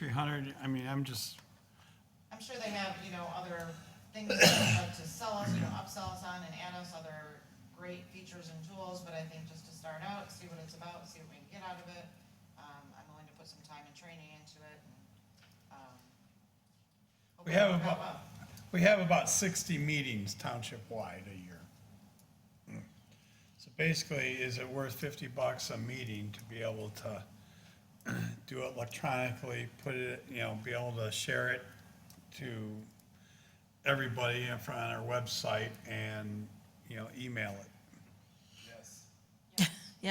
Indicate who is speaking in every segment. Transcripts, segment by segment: Speaker 1: 3,300, I mean, I'm just,
Speaker 2: I'm sure they have, you know, other things that they'd like to sell us, you know, upsell us on and add us other great features and tools, but I think just to start out, see what it's about, see what we can get out of it. Um, I'm willing to put some time and training into it and, um.
Speaker 3: We have
Speaker 2: hopefully it'll go
Speaker 3: about-
Speaker 2: well.
Speaker 3: We have about 60 meetings township-wide a year. So basically, is it worth 50 bucks a meeting to be able to do it electronically, put it, you know, be able to share it to everybody in front on our website and, you know, email it?
Speaker 4: Yes.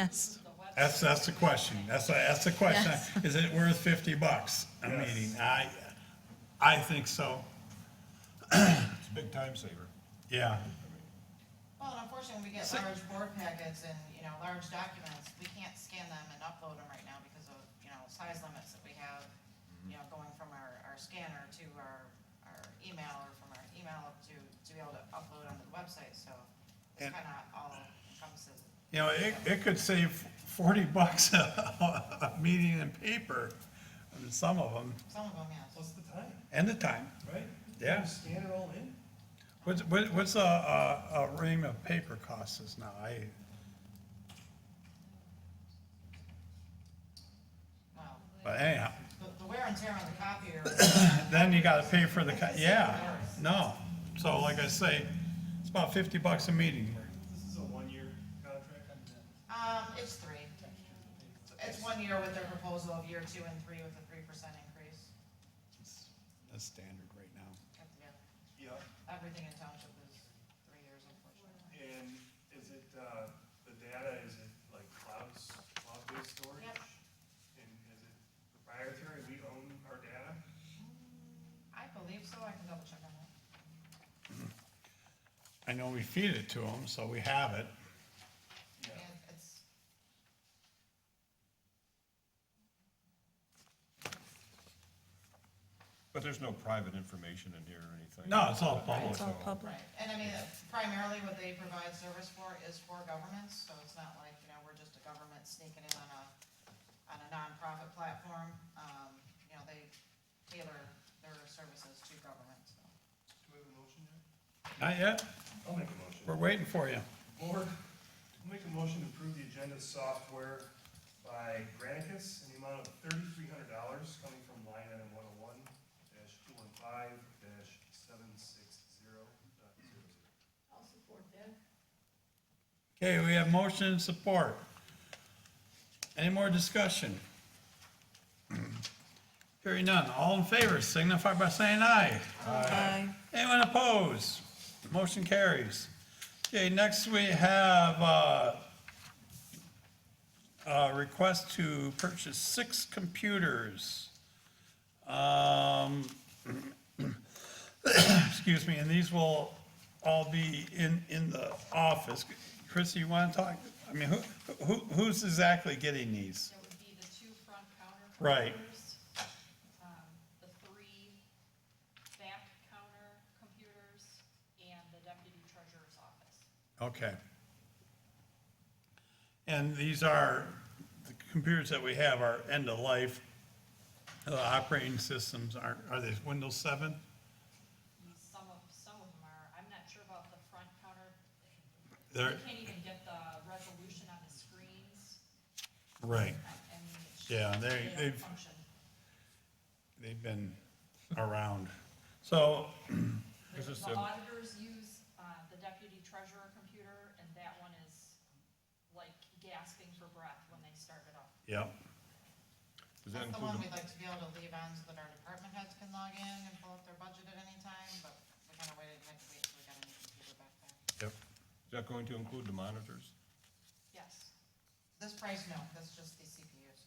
Speaker 3: That's, that's the question. That's, that's the question.
Speaker 4: Yes.
Speaker 3: Is it worth 50 bucks a meeting? I, I think so,
Speaker 5: It's a big time saver.
Speaker 3: yeah.
Speaker 2: Well, and unfortunately, when we get large board packets and, you know, large documents, we can't scan them and upload them right now because of, you know, size limits that we have, you know, going from our, our scanner to our, our email or from our email up to, to be able to upload onto the website, so it's
Speaker 3: And-
Speaker 2: kinda all encompasses.
Speaker 3: You know, it, it could save forty bucks a, a meeting in paper, and some of them,
Speaker 2: Some of them, yes.
Speaker 6: What's the time,
Speaker 3: and the time.
Speaker 6: right?
Speaker 3: Yeah.
Speaker 6: Scan it all in?
Speaker 3: What's, what- what's a, a, a ream of paper costs us now? I,
Speaker 2: Well,
Speaker 3: but anyhow,
Speaker 2: the, the wear and tear on the copier,
Speaker 3: then you gotta pay for the, co- yeah, no. So like I say, it's about fifty bucks a meeting.
Speaker 6: This is a one-year contract.
Speaker 2: um, it's three. It's one year with their proposal of year two and three with a three percent increase.
Speaker 3: That's standard right now.
Speaker 2: That's the-
Speaker 6: Yeah,
Speaker 2: Everything in township is three years unfortunately.
Speaker 6: and is it, uh, the data, is it like clouds, cloud-based storage?
Speaker 2: Yep.
Speaker 6: And is it proprietary, we own our data?
Speaker 2: I believe so, I can double check on that.
Speaker 3: I know we feed it to them, so we have it.
Speaker 2: And it's,
Speaker 5: But there's no private information in here or anything.
Speaker 3: No, it's all public.
Speaker 4: It's all public.
Speaker 2: right, and I mean, uh, primarily what they provide service for is for governments, so it's not like, you know, we're just a government sneaking in on a, on a nonprofit platform. Um, you know, they tailor their services to governments, so.
Speaker 6: Do we have a motion there?
Speaker 3: Not yet,
Speaker 6: I'll make a motion.
Speaker 3: we're waiting for you.
Speaker 6: Board, I'll make a motion to approve the agenda software by Granicus in the amount of thirty-three hundred dollars coming from line item one oh one dash two one five dash seven six zero dot zero zero.
Speaker 3: Okay, we have motion and support. Any more discussion? Hearing none, all in favor signify by saying aye.
Speaker 4: Aye.
Speaker 3: Anyone opposed? Motion carries. Okay, next we have, uh, a request to purchase six computers. Um, excuse me, and these will all be in, in the office. Chrissy, you wanna talk? I mean, who, who, who's exactly getting these?
Speaker 7: That would be the two front counter
Speaker 3: Right.
Speaker 7: computers. um, The three back counter computers and the deputy treasurer's office.
Speaker 3: Okay. And these are, the computers that we have are end of life. The operating systems aren't, are they Windows 7?
Speaker 7: And Some of, some of them are, I'm not sure about the front counter.
Speaker 3: They're,
Speaker 7: You can't even get the resolution on the screens.
Speaker 3: right,
Speaker 7: I I mean, it's just-
Speaker 3: Yeah, they-
Speaker 7: don't
Speaker 3: they've-
Speaker 7: function.
Speaker 3: they've been around. So,
Speaker 7: The
Speaker 5: It's just
Speaker 7: the
Speaker 5: a-
Speaker 7: auditors use uh, the deputy treasurer computer, and that one is like gasping for breath when they start it up.
Speaker 3: yeah,
Speaker 5: Does that
Speaker 2: That's the
Speaker 5: include,
Speaker 2: one
Speaker 5: the-
Speaker 2: we'd like to be able to leave on so that our department heads can log in and pull up their budget at any time, but we kinda waited, had to wait till we got a new computer back there.
Speaker 3: yep.
Speaker 5: is that going to include the monitors?
Speaker 7: Yes.
Speaker 2: This price, no, that's just the CPUs.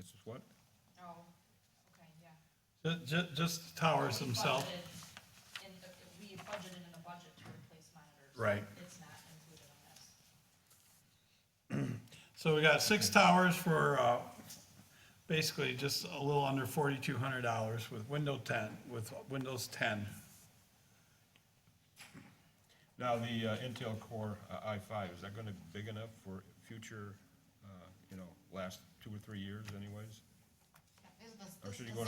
Speaker 5: It's what?
Speaker 7: Oh, okay, yeah.
Speaker 3: Just, just the towers
Speaker 7: We
Speaker 3: themselves.
Speaker 7: budgeted in the- We budgeted in the budget to replace monitors.
Speaker 3: Right.
Speaker 7: It's not included on this.
Speaker 3: So we got six towers for, uh, basically just a little under forty-two hundred dollars with Windows ten, with Windows ten.
Speaker 5: Now, the uh, Intel Core uh, i5, is that going to be big enough for future, uh, you know, last two or three years anyways?
Speaker 2: Is the this-
Speaker 5: Or
Speaker 2: this
Speaker 5: should you
Speaker 2: does
Speaker 5: go